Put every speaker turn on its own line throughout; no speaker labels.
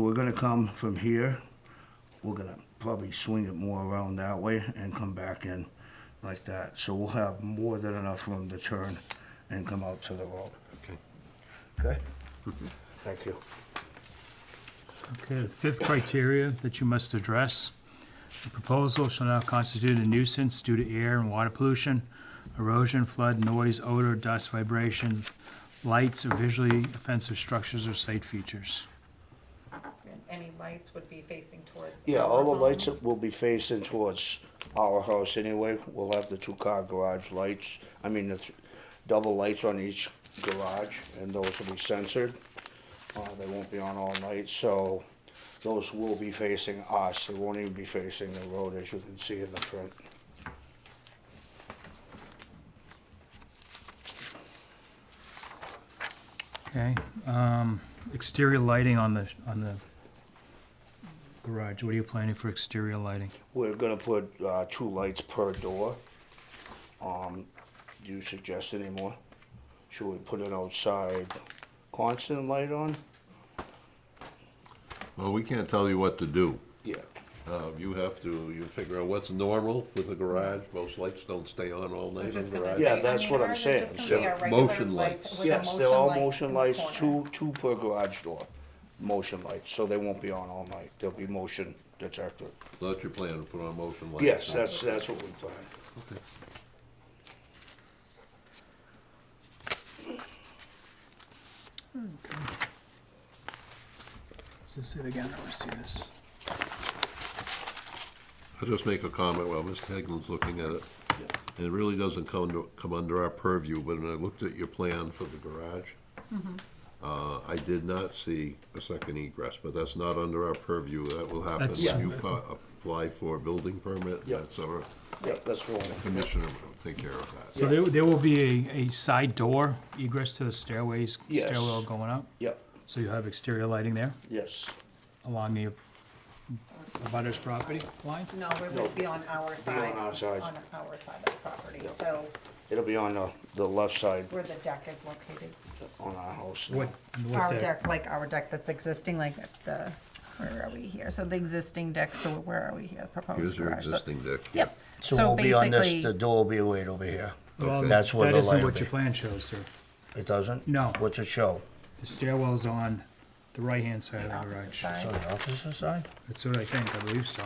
We're gonna come from here, we're gonna probably swing it more around that way and come back in like that. So we'll have more than enough room to turn and come out to the road.
Okay.
Okay? Thank you.
Okay, the fifth criteria that you must address, the proposal shall not constitute a nuisance due to air and water pollution, erosion, flood, noise, odor, dust, vibrations, lights, or visually offensive structures or site features.
And any lights would be facing towards.
Yeah,
our
all the
home.
lights will be facing towards our house anyway. We'll have the two-car garage lights, I mean, the th- double lights on each garage, and those will be censored. Uh, they won't be on all night, so those will be facing us. They won't even be facing the road, as you can see in the front.
Okay, um, exterior lighting on the, on the garage, what are you planning for exterior lighting?
We're gonna put, uh, two lights per door. Um, do you suggest any more? Should we put an outside constant light on?
Well, we can't tell you what to do.
Yeah.
Uh, You have to, you figure out what's normal with a garage. Most lights don't stay on all
I'm
night in a
just gonna
garage.
say,
Yeah,
I mean,
that's what I'm
are there
saying.
just
So,
gonna be our regular
motion lights.
with a
Yes, they're all
light
motion
in the
lights,
corner?
two, two per garage door, motion lights, so they won't be on all night, there'll be motion detector.
That's your plan, to put on motion lights.
Yes, that's, that's what we plan.
Is this it again, I want see this.
I'll just make a comment while Mr. Haglund's looking at it. And it really doesn't come, to- come under our purview, but when I looked at your plan for the garage,
Mm-hmm.
uh, I did not see a second egress, but that's not under our purview. That will happen
That's-
when you pa- apply for a building permit.
Yeah.
That's our
Yeah, that's rolling.
commissioner will take care of that.
So there, there will be a, a side door egress to the stairways,
Yes.
stairwell going up,
Yep,
so you have exterior lighting there?
yes,
along the abutter's property line?
No, it would be on our side.
our side.
On our side of the property, so
it'll be on the, the left side
where the deck is located.
on our house now.
What, what
Our
deck?
deck, like our deck that's existing, like at the, where are we here? So the existing deck, so where are we here,
Here's
proposed
your
garage? so-
existing deck.
Yep,
So
so
we'll be on this, the
basically,
door will be right over here.
Well,
That's where the
That isn't
light will
what
be.
your plan shows, sir.
It doesn't?
No.
What's it show?
The stairwell's on the right-hand side of the garage.
side.
So the opposite side?
That's what I think, I believe so.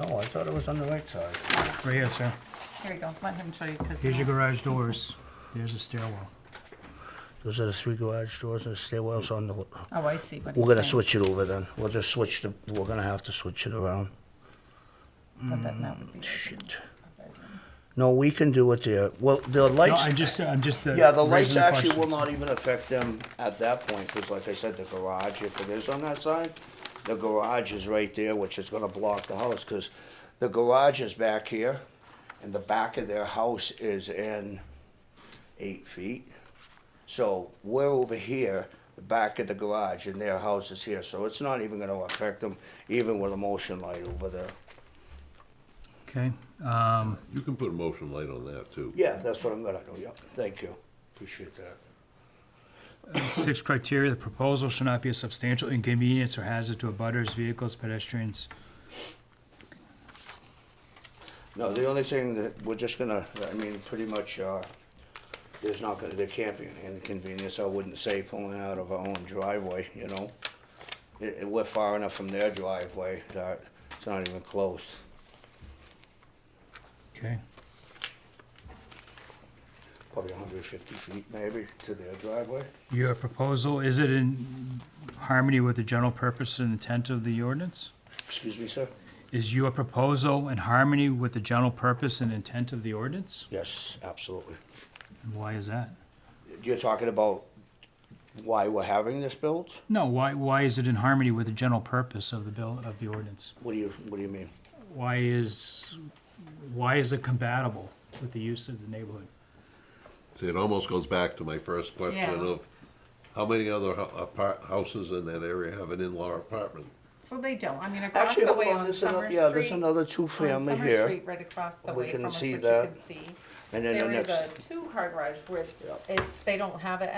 No, I thought it was on the right side.
Right here, sir.
here we go, let him show you, because.
Here's your garage doors. There's a stairwell.
Those are the three garage doors and the stairwells on the,
Oh, I see what he's saying.
we're gonna switch it over then. We'll just switch the, we're gonna have to switch it around.
But that- that would be like
Shit.
a bedroom.
No, we can do it there. Well, the
No,
lights,
I'm just, I'm just. uh,
Yeah, the lights
raising
actually will
questions.
not even affect them at that point, because like I said, the garage, if it is on that side, the garage is right there, which is gonna block the house, because the garage is back here, and the back of their house is in eight feet. So we're over here, the back of the garage, and their house is here, so it's not even gonna affect them, even with a motion light over there. e-
Okay,
You can put a motion light on that, too.
Yeah, that's what I'm gonna do, yeah, thank you, appreciate that.
six criteria, the proposal shall not be a substantial inconvenience or hazard to abutters, vehicles, pedestrians.
No, the only thing that, we're just gonna, I mean, pretty much, uh, there's not gonna, there can't be an inconvenience, I wouldn't say pulling out of our own driveway, you know? It, it- we're far enough from their driveway that it's not even close.
Okay,
Probably hundred fifty feet maybe to their driveway.
your proposal, is it in harmony with the general purpose and intent of the ordinance?
Excuse me, sir?
Is your proposal in harmony with the general purpose and intent of the ordinance?
Yes, absolutely.
And why is that?
You're talking about why we're having this built?
No, why, why is it in harmony with the general purpose of the bill, of the ordinance?
What do you, what do you mean?
Why is, why is it compatible with the use of the neighborhood?
See, it almost goes back to my first question
Yeah.
of, how many other hou- apart, houses in that area have an in-law apartment?
So they don't, I mean, across
Actually,
the
hold
way
on,
on
there's
Summer
another,
Street.
yeah, there's another
on
two-family
Summer
here.
Street, right across the
We
way
can
from us,
see
which you
that.
can see.
And then the
There is
next.
a two-car garage where it's, they don't have it